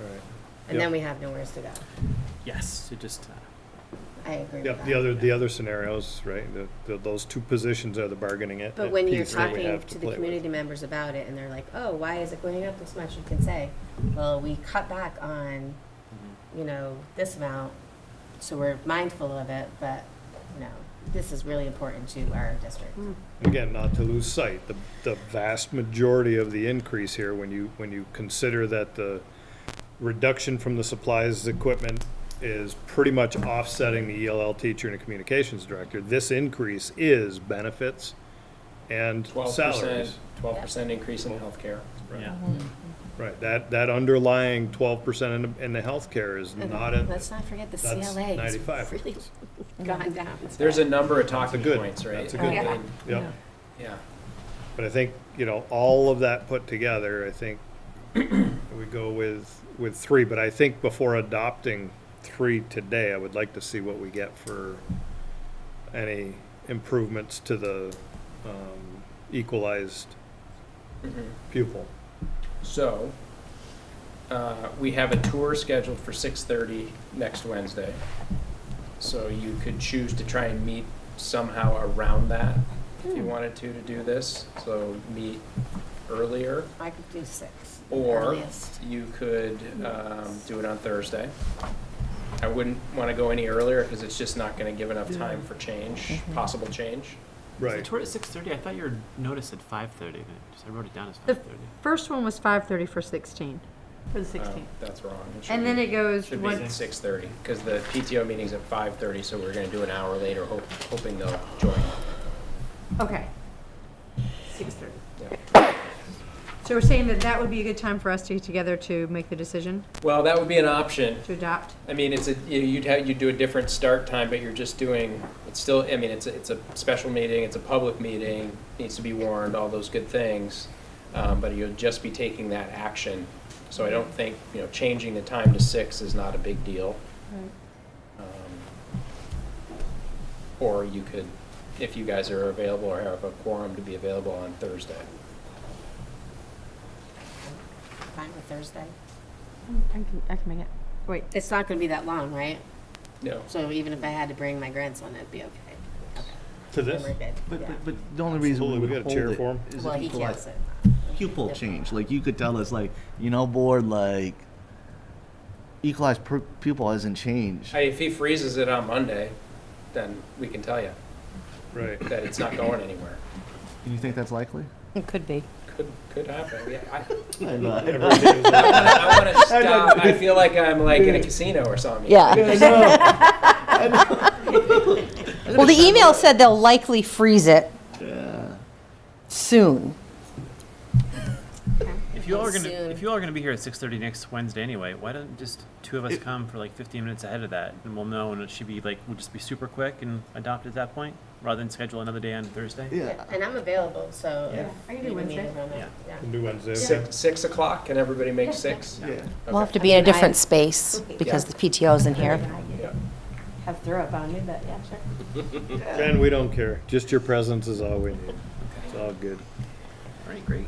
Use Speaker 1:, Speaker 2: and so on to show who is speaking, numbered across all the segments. Speaker 1: Right.
Speaker 2: And
Speaker 1: Yep.
Speaker 2: then we have nowhere to go.
Speaker 3: Yes, it just, uh,
Speaker 2: I agree with
Speaker 1: Yep,
Speaker 2: that.
Speaker 1: the other, the other scenarios, right, the, the, those two positions are the bargaining it.
Speaker 2: But
Speaker 1: it
Speaker 2: when you're
Speaker 1: piece that we
Speaker 2: talking
Speaker 1: have
Speaker 2: to
Speaker 1: play
Speaker 2: the
Speaker 1: with.
Speaker 2: community members about it and they're like, oh, why is it going up this much? You can say, well, we cut back on,
Speaker 3: Mm-hmm.
Speaker 2: you know, this amount, so we're mindful of it, but, you know, this is really important to our district.
Speaker 1: Again, not to lose sight, the, the vast majority of the increase here, when you, when you consider that the reduction from the supplies, equipment is pretty much offsetting the ELL teacher and a communications director, this increase is benefits and
Speaker 4: Twelve percent,
Speaker 1: salaries.
Speaker 4: twelve percent increase in healthcare.
Speaker 3: yeah.
Speaker 1: Right, that, that underlying twelve percent in, the- in the healthcare is
Speaker 2: And
Speaker 1: not in,
Speaker 2: Let's not forget the
Speaker 1: that's
Speaker 2: CLA. has
Speaker 1: 95.
Speaker 2: Really gone down.
Speaker 4: There's a number of talking
Speaker 1: good-
Speaker 4: points, right?
Speaker 1: that's a good
Speaker 4: And-
Speaker 1: thing. yeah.
Speaker 4: Yeah,
Speaker 1: But I think, you know, all of that put together, I think we go with, with three, but I think before adopting three today, I would like to see what we get for any improvements to the, um, equalized
Speaker 4: Mhm.
Speaker 1: pupil.
Speaker 4: so, uh, we have a tour scheduled for six thirty next Wednesday. So you could choose to try and meet somehow around that, if you wanted to, to do this, so meet earlier.
Speaker 2: I could do six.
Speaker 4: Or-
Speaker 2: earliest.
Speaker 4: You could um, do it on Thursday. I wouldn't want to go any earlier because it's just not going to give enough time for change, possible change.
Speaker 3: The
Speaker 1: Right,
Speaker 3: tour at six thirty, I thought your notice at five thirty, I wrote it down as
Speaker 5: The-
Speaker 3: five thirty.
Speaker 5: First one was five thirty for sixteen,
Speaker 6: For the
Speaker 4: Uh,
Speaker 6: 16th.
Speaker 4: That's wrong. It should
Speaker 5: and then
Speaker 4: be-
Speaker 5: it goes
Speaker 4: Should be
Speaker 5: one,
Speaker 4: at six thirty because the PTO meeting's at five thirty, so we're going to do an hour later, hope- hoping they'll join.
Speaker 5: okay.
Speaker 6: Six thirty.
Speaker 4: Yeah.
Speaker 5: So we're saying that that would be a good time for us to get together to make the decision,
Speaker 4: Well, that would be an option.
Speaker 5: to adopt?
Speaker 4: I mean, it's a, you- you'd have, you'd do a different start time, but you're just doing, it's still, I mean, it's, a- it's a special meeting, it's a public meeting, needs to be warned, all those good things. Um, but you'll just be taking that action. So I don't think, you know, changing the time to six is not a big deal. Um, Or you could, if you guys are available or have a quorum to be available on Thursday.
Speaker 2: Fine with Thursday.
Speaker 5: I can, I can make it. Wait,
Speaker 2: It's not gonna be that long, right?
Speaker 4: No.
Speaker 2: So even if I had to bring my grandson, it'd be okay.
Speaker 1: to this,
Speaker 2: Memory bid,
Speaker 7: But,
Speaker 2: yeah.
Speaker 7: but, but the only reason we
Speaker 1: Absolutely, we
Speaker 7: would
Speaker 1: got a
Speaker 7: hold
Speaker 1: chair for him.
Speaker 7: it is
Speaker 2: Well,
Speaker 7: if
Speaker 2: he
Speaker 7: people
Speaker 2: can't
Speaker 7: like
Speaker 2: sit.
Speaker 7: pupil
Speaker 2: Yeah.
Speaker 7: change, like you could tell us like, you know, board, like equalized per- pupil hasn't changed.
Speaker 4: Hey, If he freezes it on Monday, then we can tell you
Speaker 1: right.
Speaker 4: that it's not going anywhere.
Speaker 7: Do you think that's likely?
Speaker 5: it could be.
Speaker 4: Could, could happen, yeah. I,
Speaker 1: Everything is-
Speaker 4: I want to stop. I feel like I'm like in a casino or something.
Speaker 8: Well, the email said they'll likely freeze it
Speaker 7: Yeah.
Speaker 8: soon.
Speaker 3: If you all are gonna,
Speaker 2: Soon.
Speaker 3: if you all are gonna be here at six thirty next Wednesday anyway, why don't just two of us come for like fifteen minutes ahead of that, and we'll know, and it should be like, we'll just be super quick and adopt at that point, rather than schedule another day on Thursday.
Speaker 7: Yeah.
Speaker 2: And I'm available, so. if
Speaker 5: I can
Speaker 2: you need
Speaker 5: do
Speaker 2: me
Speaker 5: Wednesday.
Speaker 2: around it, yeah.
Speaker 1: Can do Wednesday.
Speaker 4: Six, six o'clock, can everybody make six?
Speaker 7: Yeah.
Speaker 8: We'll have to be in a different space because the PTO's in here.
Speaker 4: Yeah.
Speaker 6: Have throw up on me, but yeah, sure.
Speaker 1: Ben, we don't care, just your presence is all we need, it's all good.
Speaker 3: All right, great.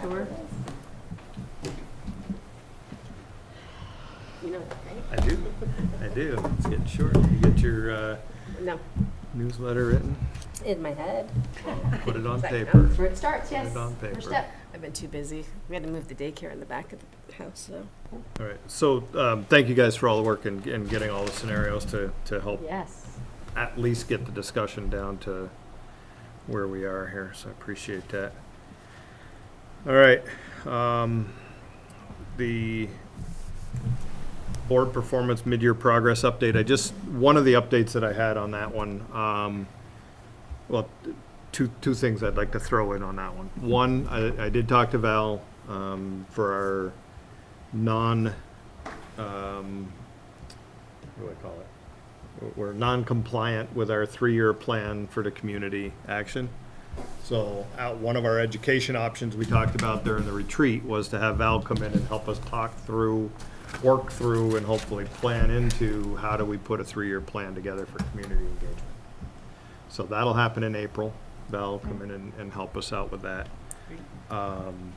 Speaker 6: Sure.
Speaker 2: You know, right?
Speaker 1: I do, I do, it's getting short, you get your, uh,
Speaker 2: No,
Speaker 1: newsletter written,
Speaker 2: in my head.
Speaker 1: put it on
Speaker 2: Like,
Speaker 1: paper.
Speaker 6: Where it starts, yes.
Speaker 1: on paper.
Speaker 6: First step.
Speaker 2: I've been too busy. We had to move the daycare in the back of the house, so.
Speaker 1: All right, so, um, thank you guys for all the work and, and getting all the scenarios to, to help
Speaker 6: Yes.
Speaker 1: at least get the discussion down to where we are here, so I appreciate that. All right, um, the board performance mid-year progress update, I just, one of the updates that I had on that one, um, well, two, two things I'd like to throw in on that one. One, I, I did talk to Val, um, for our non, um, what do I call it? we're non-compliant with our three-year plan for the community action. So, out, one of our education options we talked about during the retreat was to have Val come in and help us talk through, work through, and hopefully plan into how do we put a three-year plan together for community engagement. So that'll happen in April. Val will come in and, and help us out with that. Um,